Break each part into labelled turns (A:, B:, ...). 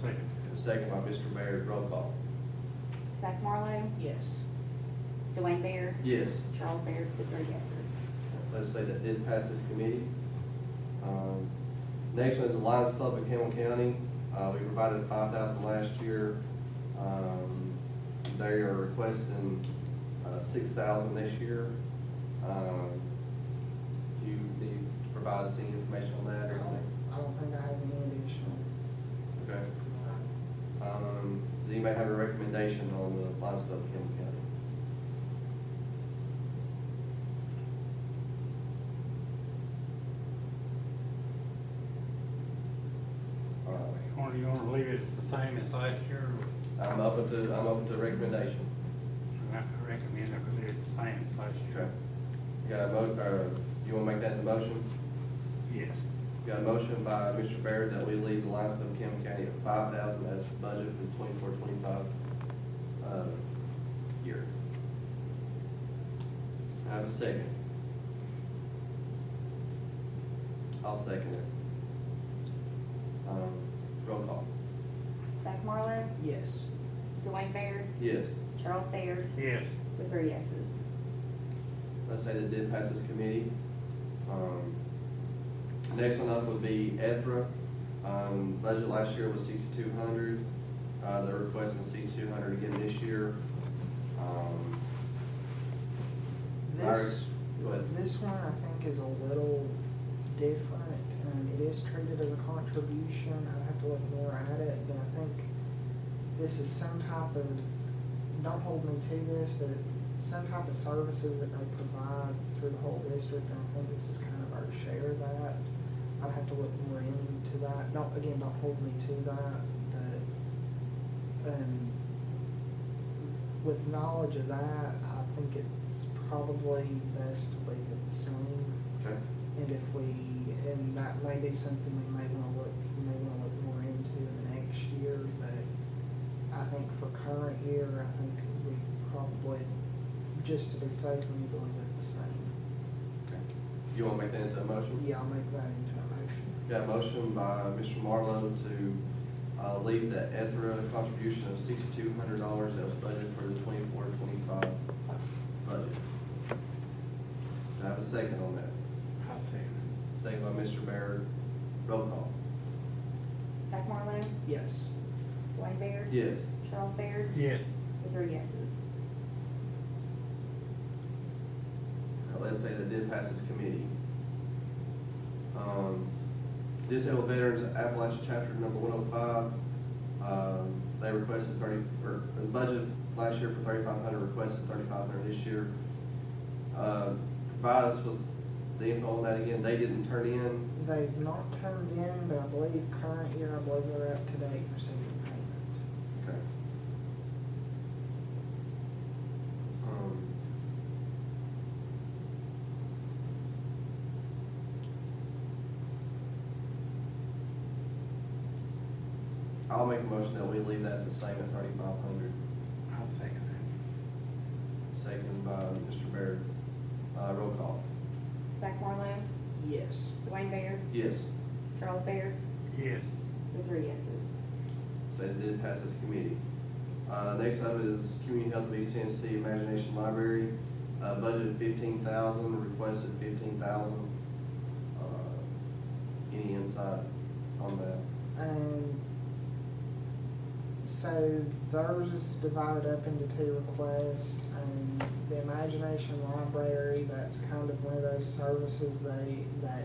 A: Second.
B: Second by Mr. Baird, roll call.
C: Zach Marlowe,
D: Yes.
C: Dwayne Bair,
B: Yes.
C: Charles Bair, with three yeses.
B: Let's say that did pass this committee. Um, Next one is the Lions Club of Hamilton County. Uh, We provided five thousand last year. Um, They are requesting uh, six thousand this year. Um, Do you need to provide us any information on
D: I
B: that or anything?
D: don't, I don't think I have any additional.
B: Okay.
D: uh,
B: Um, Does anybody have a recommendation on the Lions Club of Hamilton County? All right.
A: Or you wanna leave it the same as last year, or
B: I'm open to, I'm open to recommendation.
A: I have to recommend it, because it's the same as last
B: Okay.
A: year.
B: You got a mo, uh, you wanna make that the motion?
A: Yes.
B: You got a motion by Mr. Baird that we leave the Lions Club of Campbell County at five thousand as the budget for the twenty-four, twenty-five, uh, year. I have a second. I'll second it. Um, roll call.
C: Zach Marlowe,
D: Yes.
C: Dwayne Bair,
B: Yes.
C: Charles Bair,
A: Yes.
C: with three yeses.
B: let's say that did pass this committee. Um, Next one up would be Ethra. Um, Budget last year was sixty-two hundred. Uh, They're requesting sixty-two hundred again this year. Um,
D: This,
B: Larry, Go ahead.
D: this one I think is a little different, and it is treated as a contribution, I'd have to look more at it, but I think this is some type of, don't hold me to this, but some type of services that they provide through the whole district, and I think this is kind of our share of that. I'd have to look more into that, don't, again, don't hold me to that, but, um, with knowledge of that, I think it's probably best to leave it the same.
B: Okay,
D: And if we, and that may be something we may wanna look, we may wanna look more into in the next year, but I think for current year, I think we probably, just to be safe, we need to leave it the same.
B: okay. You want to make that into a motion?
D: Yeah, I'll make that into a motion.
B: Got a motion by Mr. Marlowe to uh, leave the Ethra contribution of sixty-two hundred dollars that was budgeted for the twenty-four, twenty-five budget. Do I have a second on that?
A: I'll second
B: Second by Mr. Baird. Roll call.
C: Zach Marlowe,
D: Yes.
C: Dwayne Bair,
B: Yes.
C: Charles Bair,
A: it. Yes.
C: with three yeses.
B: Now, let's say that did pass this committee. Um, Disabled Veterans Appalachia Chapter Number one oh five, um, they requested thirty, or, the budget last year for thirty-five hundred, requested thirty-five hundred this year. Uh, provide us with the info on that again, they didn't turn in,
D: They've not turned in, but I believe current year, I believe they're up to date and receiving payment.
B: Okay. Um, I'll make a motion that we leave that the same at thirty-five hundred,
A: I'll second
B: second by Mr. Baird. Uh, roll call.
C: Zach Marlowe,
D: Yes.
C: Dwayne Bair,
B: Yes.
C: Charles Bair,
A: that. Yes.
C: with three yeses.
B: So it did pass this committee. Uh, next up is Community Health of East Tennessee Imagination Library, uh, budgeted fifteen thousand, requested fifteen thousand. Uh, Any insight on that?
D: Um, so theirs is divided up into two requests, and the Imagination Library, that's kind of one of those services they, that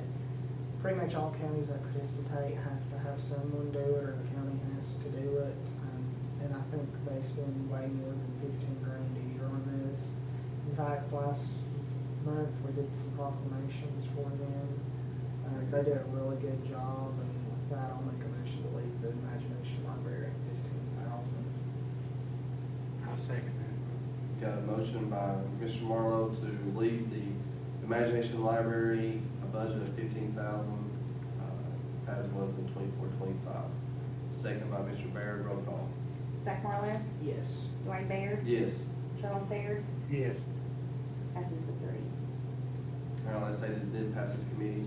D: pretty much all counties that participate have to have someone do it, or the county has to do it. Um, And I think they spend way more than fifteen grand a year on this. In fact, last month, we did some proclamations for them. Uh, they did a really good job, and with that, I'll make a motion to leave the Imagination Library at fifteen thousand.
A: I'll second
B: Got a motion by Mr. Marlowe to leave the Imagination Library, a budget of fifteen thousand, uh, as was in twenty-four, twenty-five. Second by Mr. Baird, roll call.
C: Zach Marlowe,
D: Yes.
C: Dwayne Bair,
B: Yes.
C: Charles Bair,
A: that. Yes.
C: passes with three.
B: Now, let's say that it did pass this committee.